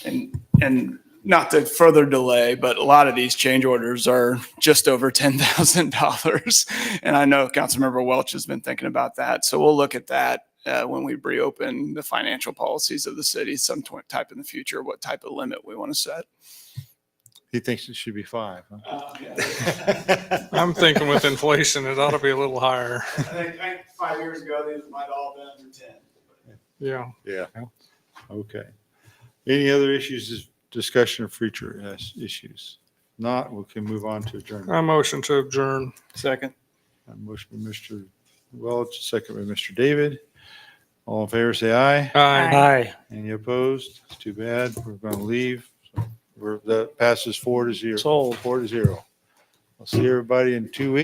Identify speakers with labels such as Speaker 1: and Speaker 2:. Speaker 1: And, and not to further delay, but a lot of these change orders are just over ten thousand dollars. And I know Councilmember Welch has been thinking about that, so we'll look at that uh, when we reopen the financial policies of the city, some tw- type in the future, what type of limit we want to set.
Speaker 2: He thinks it should be five. huh?
Speaker 1: Uh,
Speaker 3: I'm thinking with inflation, it ought to be a little higher.
Speaker 1: I think, I think five years ago, these might all been under ten.
Speaker 3: Yeah.
Speaker 2: Yeah. Okay. Any other issues, is- discussion of future uh, issues? Not, we can move on to adjournment.
Speaker 3: I motion to adjourn.
Speaker 1: Second.
Speaker 2: A Motion by Mr. Welch, second by Mr. David. All in favor, say aye.
Speaker 3: Aye.
Speaker 4: Aye.
Speaker 2: Any opposed? It's too bad. We're going to leave. So We're, that passes four to zero.
Speaker 4: Sold.
Speaker 2: Four to zero. I'll see everybody in two weeks.